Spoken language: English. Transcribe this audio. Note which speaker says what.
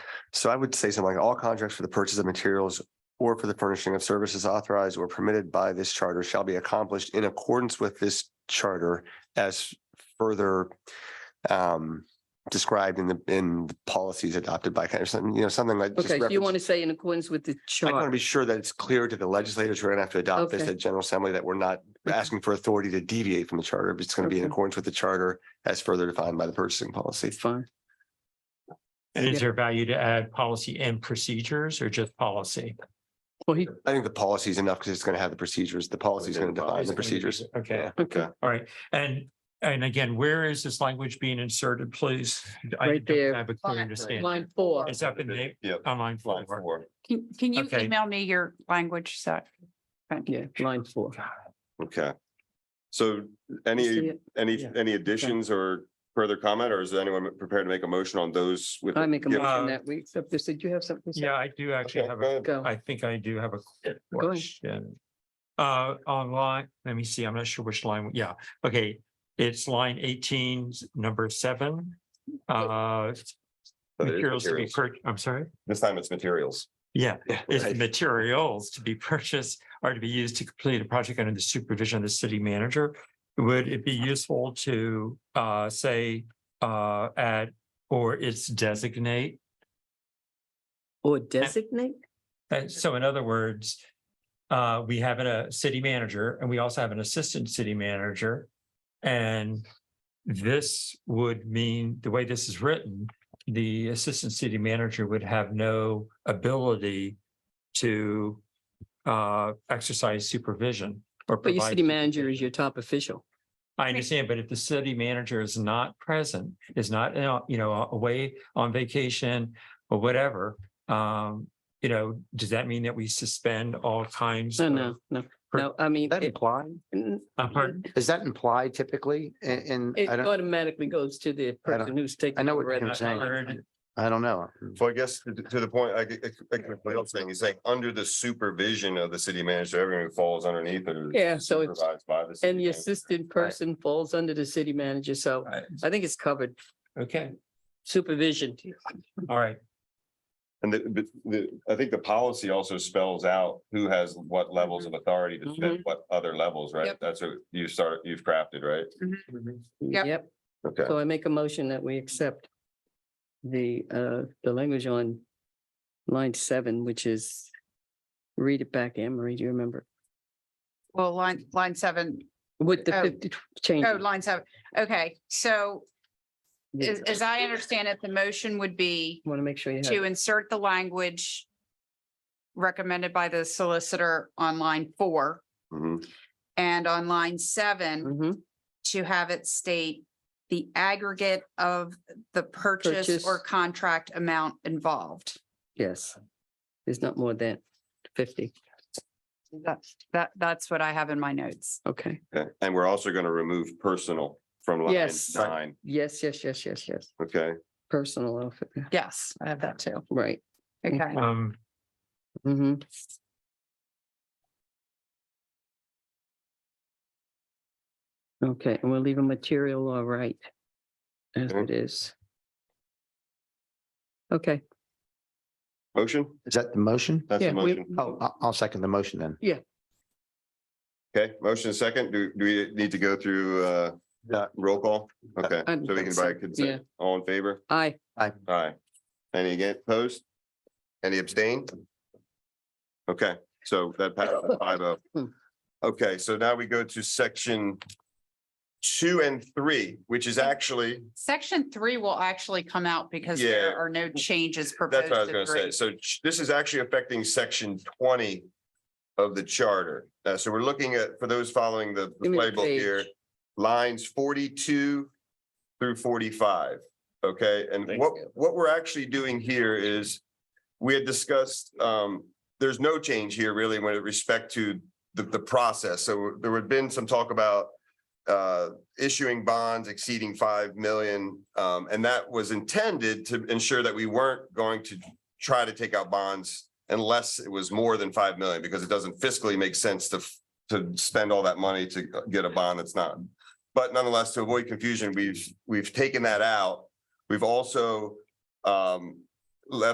Speaker 1: So I would say something like all contracts for the purchase of materials or for the furnishing of services authorized or permitted by this charter shall be accomplished in accordance with this charter as further um described in the in the policies adopted by kind of something, you know, something like. just
Speaker 2: Okay, so you
Speaker 1: reference-
Speaker 2: want to say in accordance with the
Speaker 1: I want to
Speaker 2: chart?
Speaker 1: be sure that it's clear to the legislators who are going to have to adopt this
Speaker 2: Okay.
Speaker 1: at General Assembly that we're not
Speaker 2: Okay.
Speaker 1: asking for authority to deviate from the charter, but it's going to be in
Speaker 2: Okay.
Speaker 1: accordance with the charter as further defined by the purchasing policy.
Speaker 2: Fine.
Speaker 3: And
Speaker 2: Yeah.
Speaker 3: is there value to add policy and procedures or just policy?
Speaker 2: Well, he,
Speaker 1: I think the policy is enough because it's going to have the procedures. The policy is going to define the procedures.
Speaker 3: Okay,
Speaker 2: okay,
Speaker 3: all right. And, and again, where is this language being inserted, please? I
Speaker 2: Right
Speaker 3: don't
Speaker 2: there.
Speaker 3: Have a clear understanding.
Speaker 2: line four.
Speaker 3: It's up in the,
Speaker 1: Yeah.
Speaker 3: on line four.
Speaker 4: Can, can you
Speaker 3: Okay.
Speaker 4: email me your language? So
Speaker 2: Yeah, line four.
Speaker 5: Okay. So
Speaker 2: You see
Speaker 5: any,
Speaker 2: it?
Speaker 5: any,
Speaker 2: Yeah.
Speaker 5: any additions or further comment, or is anyone prepared to make a motion on those? with
Speaker 2: I make a
Speaker 5: Yeah.
Speaker 2: motion that we accept this. Did you have something? to say?
Speaker 3: Yeah, I do actually
Speaker 5: Okay,
Speaker 3: have
Speaker 5: go
Speaker 3: a,
Speaker 5: ahead.
Speaker 2: Go.
Speaker 3: I think I do have a
Speaker 2: ahead.
Speaker 3: question. Uh, online, let me see, I'm not sure which line, yeah, okay, it's line eighteen, number seven. Uh,
Speaker 5: So it is
Speaker 3: materials to be
Speaker 5: materials.
Speaker 3: per, I'm sorry?
Speaker 5: This time it's materials.
Speaker 3: Yeah, it's
Speaker 1: Right.
Speaker 3: materials to be purchased are to be used to complete a project under the supervision of the city manager. Would it be useful to uh say uh add or its designate?
Speaker 2: Or designate?
Speaker 3: And so in other words, uh, we have a city manager and we also have an assistant city manager. And this would mean, the way this is written, the assistant city manager would have no ability to uh, exercise supervision or.
Speaker 2: But your
Speaker 3: provide
Speaker 2: city manager
Speaker 3: supervision.
Speaker 2: is your top official.
Speaker 3: I understand, but if the city manager is not present, is not, you know, you know, away on vacation or whatever, um, you know, does that mean that we suspend all kinds?
Speaker 2: No,
Speaker 3: of-
Speaker 2: no, no, no, I mean.
Speaker 6: That
Speaker 2: it-
Speaker 6: imply,
Speaker 2: n-
Speaker 3: Uh, pardon?
Speaker 6: is that implied typically? And,
Speaker 2: It
Speaker 6: I don't,
Speaker 2: automatically goes to the
Speaker 6: I don't-
Speaker 2: person who's taking.
Speaker 6: I know what
Speaker 2: over at
Speaker 6: you're
Speaker 2: the
Speaker 6: saying.
Speaker 2: time.
Speaker 6: I don't know.
Speaker 5: So I guess to- to the point, I, get- I, get what else saying, he's saying, under the supervision of the city manager, everyone who falls underneath it. is
Speaker 2: Yeah, so it's-
Speaker 5: supervised by the city
Speaker 2: And the
Speaker 5: manager.
Speaker 2: assistant person falls under the city manager, so I think it's covered.
Speaker 3: Okay,
Speaker 2: Supervision.
Speaker 3: all right.
Speaker 5: And the, but the, I think the policy also spells out who has what levels of authority to set
Speaker 2: Mhm.
Speaker 5: what other levels, right?
Speaker 4: Yep.
Speaker 5: That's what you start, you've crafted, right?
Speaker 4: Yep.
Speaker 2: Yep,
Speaker 5: Okay.
Speaker 2: so I make a motion that we accept the, uh, the language on line seven, which is, read it back, Anne Marie, do you remember?
Speaker 4: well, line, line seven,
Speaker 2: With the
Speaker 4: Oh.
Speaker 2: fifty change.
Speaker 4: oh, line seven. Okay, so as, as I understand it, the motion would be
Speaker 2: Want to make sure you
Speaker 4: to
Speaker 2: have,
Speaker 4: insert the language recommended by the solicitor on line four
Speaker 5: Mhm.
Speaker 4: and on line seven
Speaker 2: Mhm,
Speaker 4: to have it state the aggregate of the purchase
Speaker 2: Purchase.
Speaker 4: or contract amount involved.
Speaker 2: yes. There's not more than fifty,
Speaker 4: That's, that, that's what I have in my notes.
Speaker 2: okay.
Speaker 5: Okay, and we're also gonna remove personal from line
Speaker 2: Yes.
Speaker 5: nine,
Speaker 2: Yes, yes, yes, yes, yes,
Speaker 5: okay?
Speaker 2: personal outfit, yeah,
Speaker 4: Yes, I have that too.
Speaker 2: right.
Speaker 4: Okay.
Speaker 3: Um,
Speaker 2: Mm-hmm. Okay, and we'll leave a material all right as it
Speaker 5: Okay.
Speaker 2: is. Okay,
Speaker 5: Motion?
Speaker 6: Is that the motion?
Speaker 5: That's
Speaker 2: yeah,
Speaker 5: the
Speaker 2: we,
Speaker 5: motion.
Speaker 6: Oh, I'll, I'll second the motion then.
Speaker 5: Okay, motion second. Do, do we need to go through, uh,
Speaker 1: Yeah.
Speaker 5: roll call? Okay,
Speaker 2: I don't
Speaker 5: so we
Speaker 2: think
Speaker 5: can
Speaker 2: so.
Speaker 5: buy consent. All in favor?
Speaker 2: I,
Speaker 5: Aye. Any against, opposed? Any abstain? Okay, so that passed five oh. Okay, so now we go to section two and three, which is actually,
Speaker 4: Section three will actually come out because there
Speaker 5: Yeah.
Speaker 4: are no changes proposed.
Speaker 5: that's what I was
Speaker 4: to
Speaker 5: gonna say.
Speaker 4: three.
Speaker 5: So ch- this is actually affecting section twenty of the charter. Uh, so we're looking at, for those following the the
Speaker 2: Give me the
Speaker 5: playbook here,
Speaker 2: page.
Speaker 5: lines forty-two through forty-five. Okay, and what, what we're actually doing here is we had discussed, um, there's no change here really with respect to the, the process. So there had been some talk about uh, issuing bonds exceeding five million. Um, and that was intended to ensure that we weren't going to try to take out bonds unless it was more than five million, because it doesn't fiscally make sense to, f- to spend all that money to get a bond that's not. But nonetheless, to avoid confusion, we've, we've taken that out. We've also um, left